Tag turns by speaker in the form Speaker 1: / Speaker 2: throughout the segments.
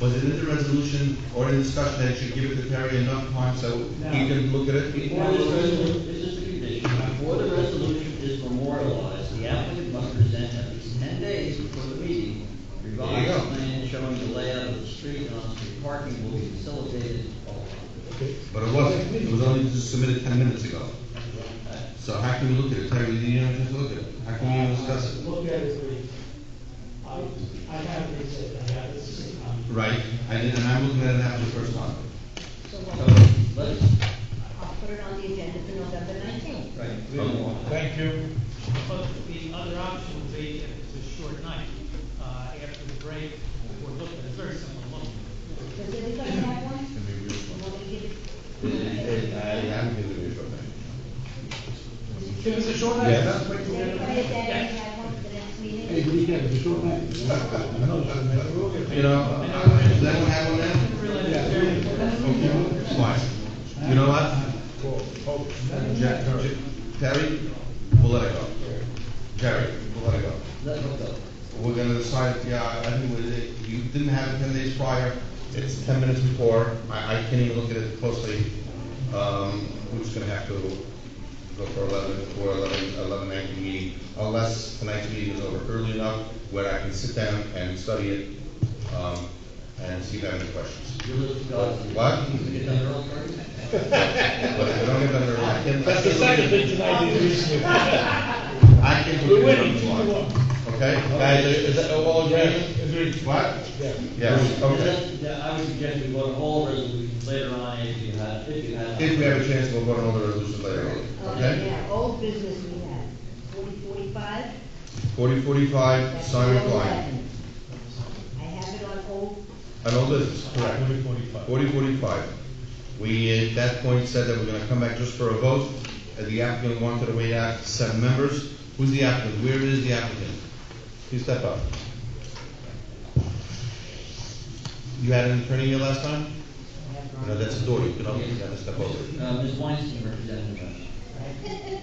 Speaker 1: Was it in the resolution or in the discussion that you should give it to Terry enough time so he can look at it?
Speaker 2: Before this resolution, this is the condition, before the resolution is memorialized, the applicant must present at least ten days before the meeting.
Speaker 1: There you go.
Speaker 2: Revised plan showing the layout of the street and on-street parking will be facilitated.
Speaker 1: But it wasn't, it was only just submitted ten minutes ago. So how can we look at it, Terry, you don't have to look at it, how can we discuss it?
Speaker 3: Look at it, please. I, I have this, I have this. um,
Speaker 1: Right, I did, and I'm looking at it now for the first time.
Speaker 4: So
Speaker 2: So,
Speaker 4: we'll-
Speaker 2: let's,
Speaker 4: I'll put it on the agenda for November nineteenth.
Speaker 2: right, we don't want.
Speaker 5: Thank you.
Speaker 6: But the other option would be, if it's a short night, uh, after the break, or look at a very similar look.
Speaker 4: Does anybody have one? Want to give it?
Speaker 1: I'm giving it a short
Speaker 5: Give us a short
Speaker 1: Yeah.
Speaker 5: answer.
Speaker 4: Does anybody that have one for the next meeting?
Speaker 1: You know, does anyone have one now?
Speaker 6: Really, very-
Speaker 1: Okay, fine. You know what? Jack, J- Terry, we'll let it go. Jerry, we'll let it go.
Speaker 2: Let it go.
Speaker 1: We're gonna decide, yeah, I think we did- you didn't have it ten days prior, it's ten minutes before, I, I can't even look at it closely. Um, we're just gonna have to go for eleven, for eleven, eleven nineteen meeting, unless tonight's meeting is over early enough where I can sit down and study it, um, and see if I have any questions.
Speaker 2: You're listening to us.
Speaker 1: What?
Speaker 2: We get done early, right?
Speaker 1: But if I don't get them, I can.
Speaker 5: That's the second thing tonight is this
Speaker 1: I can.
Speaker 5: We're winning, two to
Speaker 1: Okay,
Speaker 5: one.
Speaker 1: guys, is that all agreed?
Speaker 5: Agreed.
Speaker 1: What?
Speaker 5: Yeah.
Speaker 1: Yes, okay.
Speaker 2: Then- then I would suggest we vote on all resolutions later on if you have, if you have.
Speaker 1: If we have a chance, we'll vote on all the resolutions later on,
Speaker 4: Okay,
Speaker 1: okay?
Speaker 4: Uh, yeah, old business we have, forty forty-five.
Speaker 1: Forty forty-five, Simon Klein,
Speaker 4: I have it on old,
Speaker 1: an old business, correct?
Speaker 5: Forty, forty-five.
Speaker 1: Forty forty-five. We, at that point, said that we're gonna come back just for a vote, and the applicant wanted to wait out seven members. Who's the applicant? Where is the applicant? Please step up. You had an attorney here last time? No, that's a door, you can open, you gotta step over.
Speaker 2: Uh, Ms. Weinstein representing the.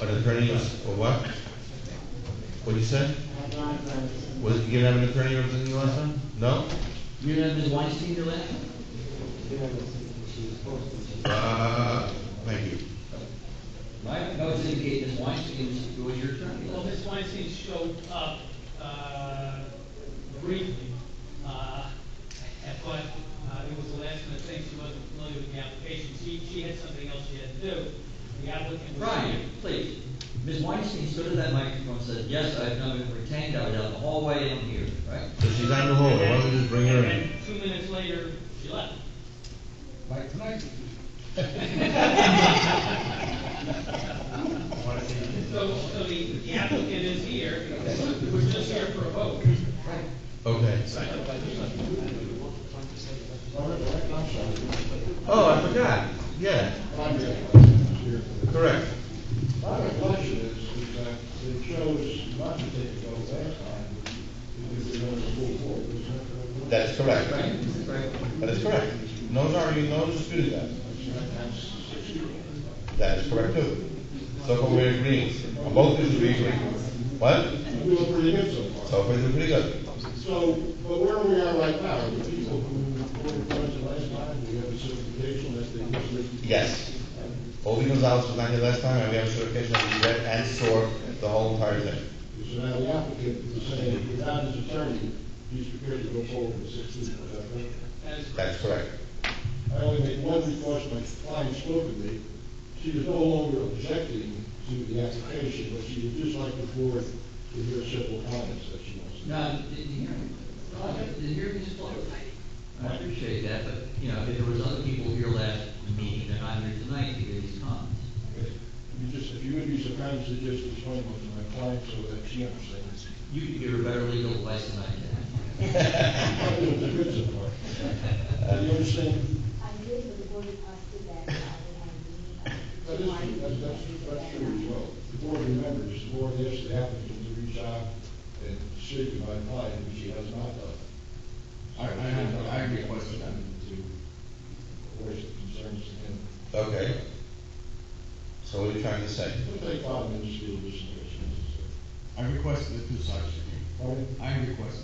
Speaker 1: An attorney or s- or what? What'd you say? Was, you didn't have an attorney representing you last time? No?
Speaker 2: You know Ms. Weinstein, your last?
Speaker 1: Uh, thank you.
Speaker 2: Right, no, it's indicate Ms. Weinstein is, was your attorney.
Speaker 6: Well, Ms. Weinstein showed up uh, briefly, uh, but uh, it was the last minute thing, she wasn't familiar with the application. She, she had something else she had to do. The applicant was.
Speaker 2: Brian, please. Ms. Weinstein stood at that microphone and said, yes, I've now been retained, I was out in the hallway, and I'm here, right?
Speaker 1: So she's on the hallway, why don't we just bring her
Speaker 6: And
Speaker 1: in?
Speaker 6: then two minutes later, she left.
Speaker 2: Like tonight.
Speaker 6: So, so the the applicant is here, we're just here for a vote.
Speaker 1: Okay. Oh, I forgot, yeah. Correct.
Speaker 7: My reflection is, is that they chose not to take a vote last time, because they were on the full board, was that correct?
Speaker 1: That is correct. That is correct. No, sorry, no disputing that. That is correct too. So far we're agreeing, on both issues we agree. What?
Speaker 7: We're doing pretty good so far.
Speaker 1: So far they're pretty good.
Speaker 7: So, but where are we at right now? The people who were present last time, we have a certification that they must live.
Speaker 1: Yes. Obi Gonzalez was not here last time, and we have a certification that we read and saw the whole entire thing.
Speaker 7: So now the applicant is saying, without his attorney, he's prepared to go forward with sixteen, was that correct?
Speaker 6: That is
Speaker 1: That's correct.
Speaker 7: I only made one request, my client spoke with me, she was no longer objecting to the application, but she would just like the board to hear several comments that she wants to make.
Speaker 2: No, didn't hear me. No, Didn't hear me just blow. I appreciate that, but, you know, if there was other people here last meeting, they're not here tonight to hear these comments.
Speaker 7: You just, if you would be so kind as to just explain what to my client so that she understands.
Speaker 2: You could give her better legal advice than I can.
Speaker 7: That was the good so far. Do you understand?
Speaker 4: I live with the board of trustee that I
Speaker 7: That
Speaker 4: would have
Speaker 7: is,
Speaker 4: to.
Speaker 7: that's, that's, that's true as well. The board remembers, the board asked the applicant to reach out and speak with my client, which she has not done.
Speaker 8: I, I have, I requested them to,
Speaker 7: Voice concerns and
Speaker 1: Okay. So what are you trying to say?
Speaker 7: It'll take five minutes to do this.
Speaker 8: I requested it to such,
Speaker 7: Pardon?
Speaker 8: I requested